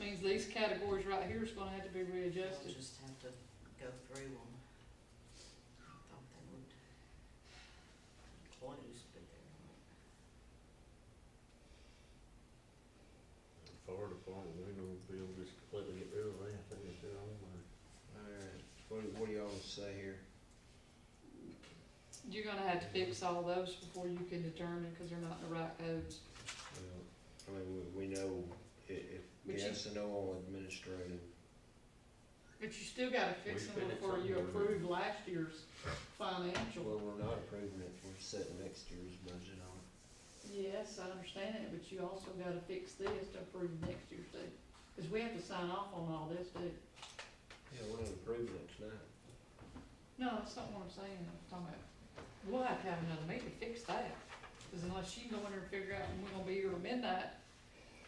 these, these categories right here is gonna have to be We'll readjusted. just have to go through them. I thought they would close, but they're not. Fire department, we know, Bill just completely get rid of that, they just do it online. Alright, what, what do y'all say here? You're gonna have to fix all those before you can determine, cause they're not in the right codes. Well, Uh, I mean, we, we know i- if But you- gas and oil administrative, But you still gotta fix We them fix before them. you approve last year's financial. well, we're not approving it, we're setting next year's budget on it. Yes, I understand it, but you also gotta fix this to approve next year's too, cause we have to sign off on all this too. Yeah, we're not approving it tonight. No, that's not what I'm saying, I'm talking about, we'll have to have another meeting to fix that, cause unless you go in there and figure out when we're gonna be here at midnight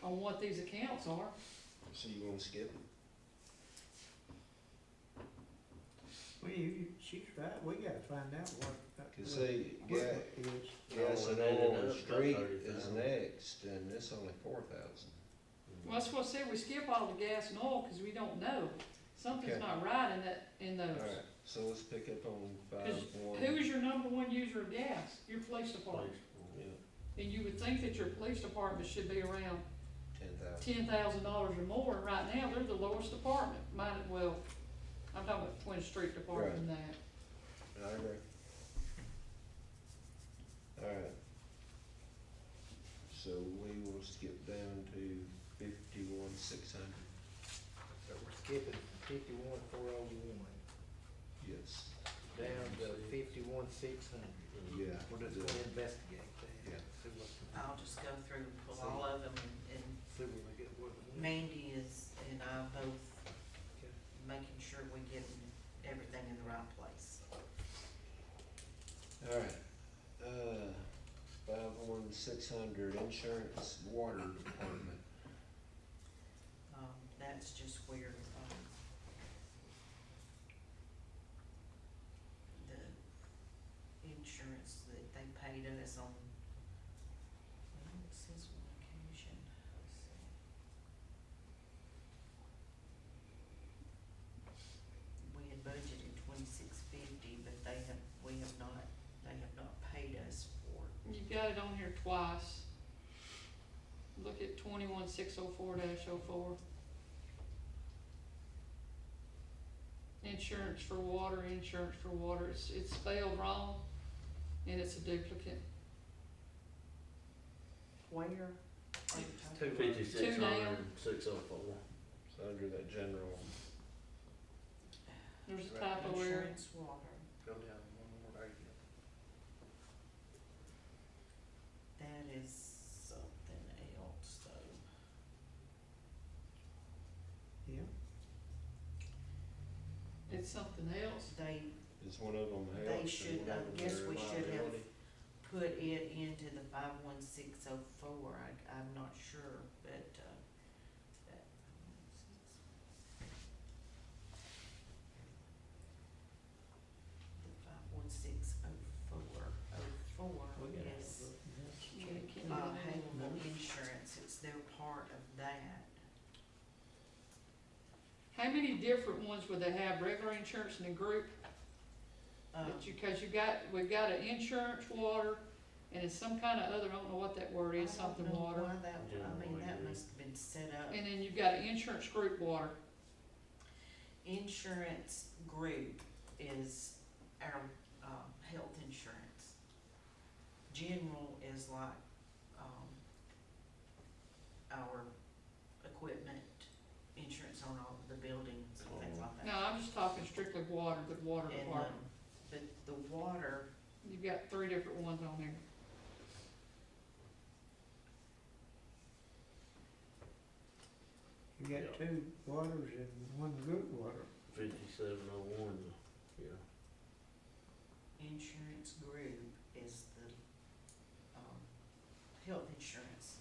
on what these accounts are, So you wanna skip it? Well, you, you- she's right, we gotta find out what. that- Cause see, what ga- it is. gas and Oh, oil and and that's about street is 30,000. next, and it's only four thousand. well, that's what I said, we skip all the gas and oil, cause we don't know. Something's Okay. not right in that, in those. Alright, so let's pick up on five 'Cause one. Who is your number one user of gas? Your police department. Place for Yeah, it. And you would think that your police department should be around ten thousand. ten thousand dollars or more, and right now, they're the lowest department, might as well, I'm talking about Twin Street Department and that. I agree. Alright. So we will skip down to fifty-one, six hundred, So we're skipping from fifty-one, four oh one, yes, down to fifty-one, six hundred. yeah. We're just gonna investigate Yeah. that, see what, I'll just go through and pull all of them, and see what we get, what we want. Mandy is, and I both Okay. making sure we get everything in the right place. Alright, uh, five one, six hundred, insurance, water department, Um, that's just where, um, the insurance that they paid us on, well, it says one occasion, let's see. We had budgeted twenty-six fifty, but they have, we have not, they have not paid us for it. You've got it on here twice. Look at twenty-one six oh four dash oh four. Insurance for water, insurance for water, it's, it's spelled wrong, and it's a duplicate. Where? Two Fifty-six hundred, down. six oh four. it's under that general, There's a Right. typo error. Insurance water, Go down one more area. that is something else though. Yeah, It's something else. They is one of them They health and should, one I of them guess their we should have- liability? put it into the five one six oh four, I, I'm not sure, but, uh, that. The five one six oh four, oh four we gotta. have a is, look and have some Yeah, check. it can't be uh, done. Havel Insurance, it's their part of that. How many different ones would they have, regular insurance in the group, Um, that you, cause you got, we've got an insurance water, and it's some kind of other, I don't know what that word is, I don't something know water. Why that, I mean, Generally, that yeah. must have been set up. And then you've got an insurance group water, Insurance group is our, um, health insurance. General is like, um, our equipment, insurance on all the buildings and things like no, that. I'm just talking strictly water, the water And, department, um, but the water, you've got three different ones on there. You got two waters and one good water. Fifty-seven oh one, yeah. insurance group is the, um, health insurance.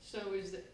So is it,